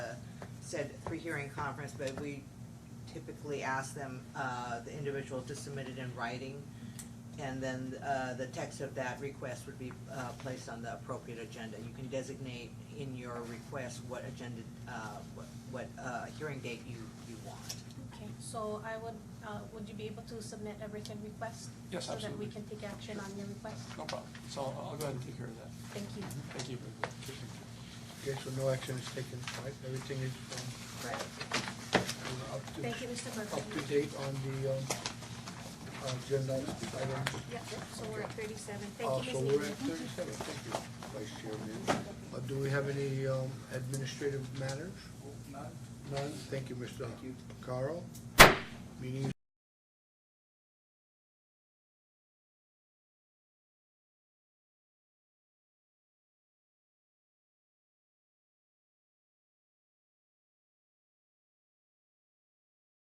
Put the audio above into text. said pre-hearing conference, but we typically ask them, uh, the individual to submit it in writing. And then, uh, the text of that request would be, uh, placed on the appropriate agenda. You can designate in your request what agenda, uh, what, what, uh, hearing date you, you want. Okay, so I would, uh, would you be able to submit a written request? Yes, So that we absolutely. can take action on your request? No problem. So I'll I'll go ahead and take care of that. Thank you. Thank you. Okay, so no action is taken, right? Everything is um, Right. up to, Thank you, Mr. Murphy. up to date on the um, agenda items. Yeah, so we're at thirty-seven. Uh, Thank you, So Ms. we're Neely. at thirty-seven, thank you, Vice Chairman. Uh, Do we have any um, administrative matters? None. None, thank you, Mr. Carl. Meeting is